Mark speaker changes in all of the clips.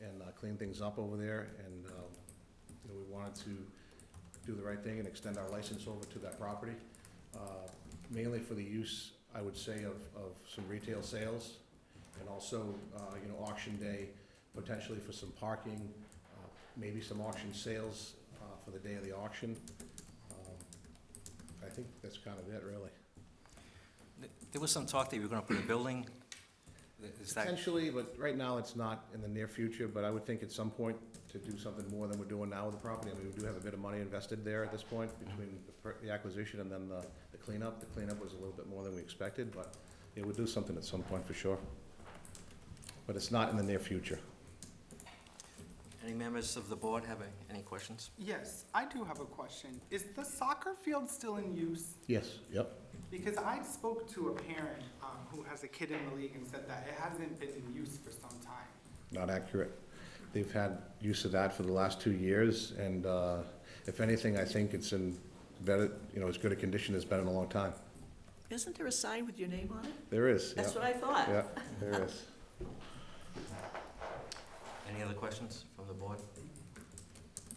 Speaker 1: and uh, clean things up over there, and, um, you know, we wanted to do the right thing and extend our license over to that property, uh, mainly for the use, I would say, of, of some retail sales, and also, uh, you know, auction day, potentially for some parking, uh, maybe some auction sales uh, for the day of the auction. Um, I think that's kind of it, really.
Speaker 2: Th- There was some talk that you were gonna put a building, Th- is that,
Speaker 1: Potentially, but right now it's not in the near future, but I would think at some point to do something more than we're doing now with the property. I mean, we do have a bit of money invested there at this point between the per- the acquisition and then the the cleanup. The cleanup was a little bit more than we expected, but yeah, we'll do something at some point for sure. But it's not in the near future.
Speaker 2: any members of the board have a- any questions?
Speaker 3: Yes, I do have a question. Is the soccer field still in use?
Speaker 1: Yes, yep.
Speaker 3: Because I spoke to a parent um, who has a kid in the league and said that it hasn't been in use for some time.
Speaker 1: not accurate. They've had use of that for the last two years, and uh, if anything, I think it's in better, you know, as good a condition as it's been in a long time.
Speaker 4: Isn't there a sign with your name on it?
Speaker 1: There is, yeah.
Speaker 4: That's what I thought.
Speaker 1: Yeah, there is.
Speaker 2: Any other questions from the board?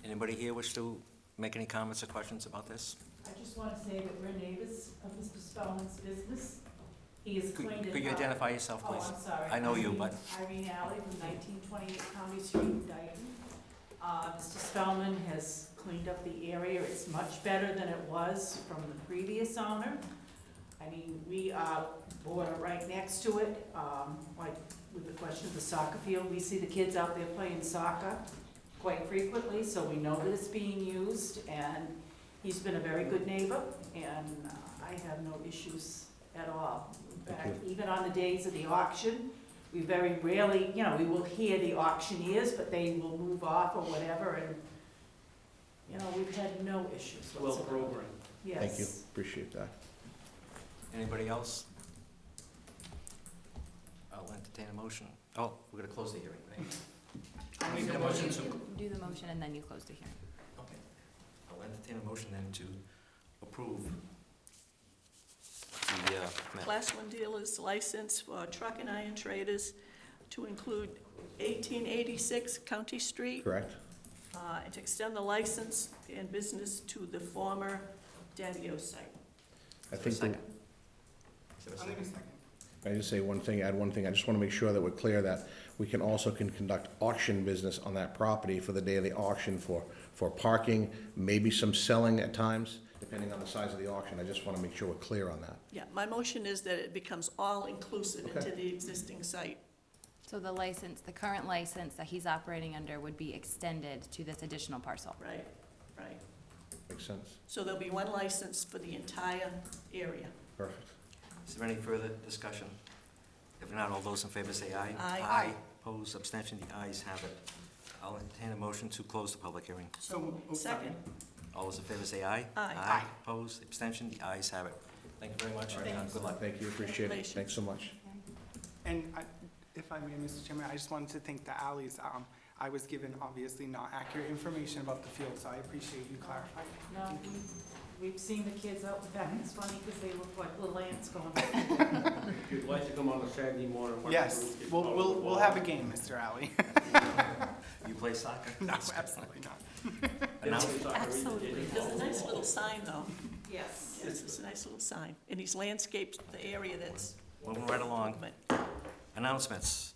Speaker 2: Anybody here wish to make any comments or questions about this?
Speaker 5: I just want to say that we're neighbors of Mr. Spellman's business. He has
Speaker 2: Could
Speaker 5: cleaned it up.
Speaker 2: could you identify yourself,
Speaker 5: Oh,
Speaker 2: please?
Speaker 5: I'm sorry.
Speaker 2: I know you,
Speaker 5: Irene-
Speaker 2: but-
Speaker 5: Irene Alley from 1928 County Street, Dayton. Uh, Mr. Spellman has cleaned up the area. It's much better than it was from the previous owner. I mean, we are border right next to it, um, like with the question of the soccer field. We see the kids out there playing soccer quite frequently, so we know that it's being used, and he's been a very good neighbor, and uh, I have no issues at all. In fact,
Speaker 1: Thank
Speaker 5: even on the days of the auction, we very rarely, you know, we will hear the auctioneers, but they will move off or whatever, and, you know, we've had no issues
Speaker 3: Well,
Speaker 5: whatsoever. Yes.
Speaker 1: Thank you, appreciate that.
Speaker 2: Anybody else? I'll entertain a motion. Oh, we're gonna close the hearing, right? I'll make a motion to,
Speaker 6: Do the motion and then you close the hearing.
Speaker 2: okay. I'll entertain a motion then to approve the, uh, ma-
Speaker 4: Class one dealer's license for truck and iron traders to include 1886 County Street,
Speaker 1: Correct?
Speaker 4: uh, and to extend the license and business to the former Daddio site.
Speaker 1: I
Speaker 2: Is there a
Speaker 1: think, the-
Speaker 2: second? Is there a
Speaker 3: I'll give you
Speaker 2: second?
Speaker 3: a second.
Speaker 1: I just say one thing, add one thing, I just want to make sure that we're clear that we can also can conduct auction business on that property for the day of the auction for, for parking, maybe some selling at times, depending on the size of the auction. I just want to make sure we're clear on that.
Speaker 4: Yeah, my motion is that it becomes all-inclusive into
Speaker 1: Okay.
Speaker 4: the existing site.
Speaker 6: So the license, the current license that he's operating under would be extended to this additional parcel.
Speaker 4: Right, right.
Speaker 1: Makes sense?
Speaker 4: So there'll be one license for the entire area.
Speaker 1: Perfect.
Speaker 2: Is there any further discussion? If not, all those in favor say aye.
Speaker 4: Aye.
Speaker 2: Aye, opposed, abstention, the ayes have it. I'll entertain a motion to close the public hearing.
Speaker 3: So, oh, sorry.
Speaker 4: Second,
Speaker 2: All those in favor say aye.
Speaker 4: Aye.
Speaker 2: Aye, opposed, abstention, the ayes have it. Thank you very much,
Speaker 4: Thank
Speaker 2: and
Speaker 4: you.
Speaker 2: good luck.
Speaker 1: Thank you, appreciate it. Thanks so much.
Speaker 3: And I- if I may, Mr. Chairman, I just wanted to thank the alleys. Um, I was given obviously not accurate information about the field, so I appreciate you clarifying.
Speaker 5: No, we- we've seen the kids out the back. It's funny because they look like little ants going.
Speaker 7: If you'd like to come on a Saturday morning. one of
Speaker 3: Yes,
Speaker 7: those get
Speaker 3: we'll,
Speaker 7: called
Speaker 3: we'll,
Speaker 7: the
Speaker 3: we'll have a game, Mr. Alley.
Speaker 2: You play soccer?
Speaker 3: No, absolutely not.
Speaker 7: ball.
Speaker 2: Announce-
Speaker 7: It's like a reason they
Speaker 6: Absolutely.
Speaker 7: get
Speaker 4: there's a
Speaker 7: called the
Speaker 4: nice
Speaker 7: ball.
Speaker 4: little sign, though.
Speaker 5: Yes.
Speaker 4: Yes, it's a nice little sign, and he's landscaped the area that's.
Speaker 2: Moving right along, announcements.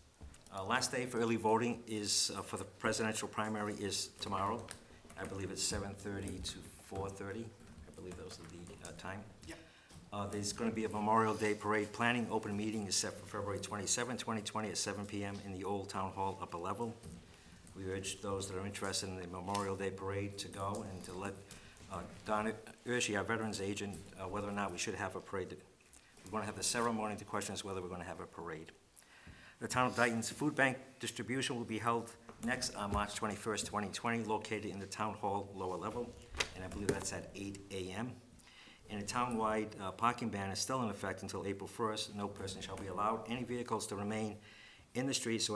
Speaker 2: Uh, Last day for early voting is, uh, for the presidential primary is tomorrow. I believe it's 7:30 to 4:30. I believe those are the uh, time.
Speaker 3: Yep.
Speaker 2: Uh, There's going to be a Memorial Day Parade planning. Open meeting is set for February 27, 2020 at 7 PM in the Old Town Hall upper level. We urge those that are interested in the Memorial Day Parade to go and to let uh, Donna Urshi, our Veterans Agent, uh, whether or not we should have a parade. We're going to have the ceremony. The question is whether we're going to have a parade. The Town of Dayton's food bank distribution will be held next on March 21st, 2020, located in the Town Hall lower level, and I believe that's at 8 a.m. And a townwide uh, parking ban is still in effect until April 1st. No person shall be allowed any vehicles to remain in the streets or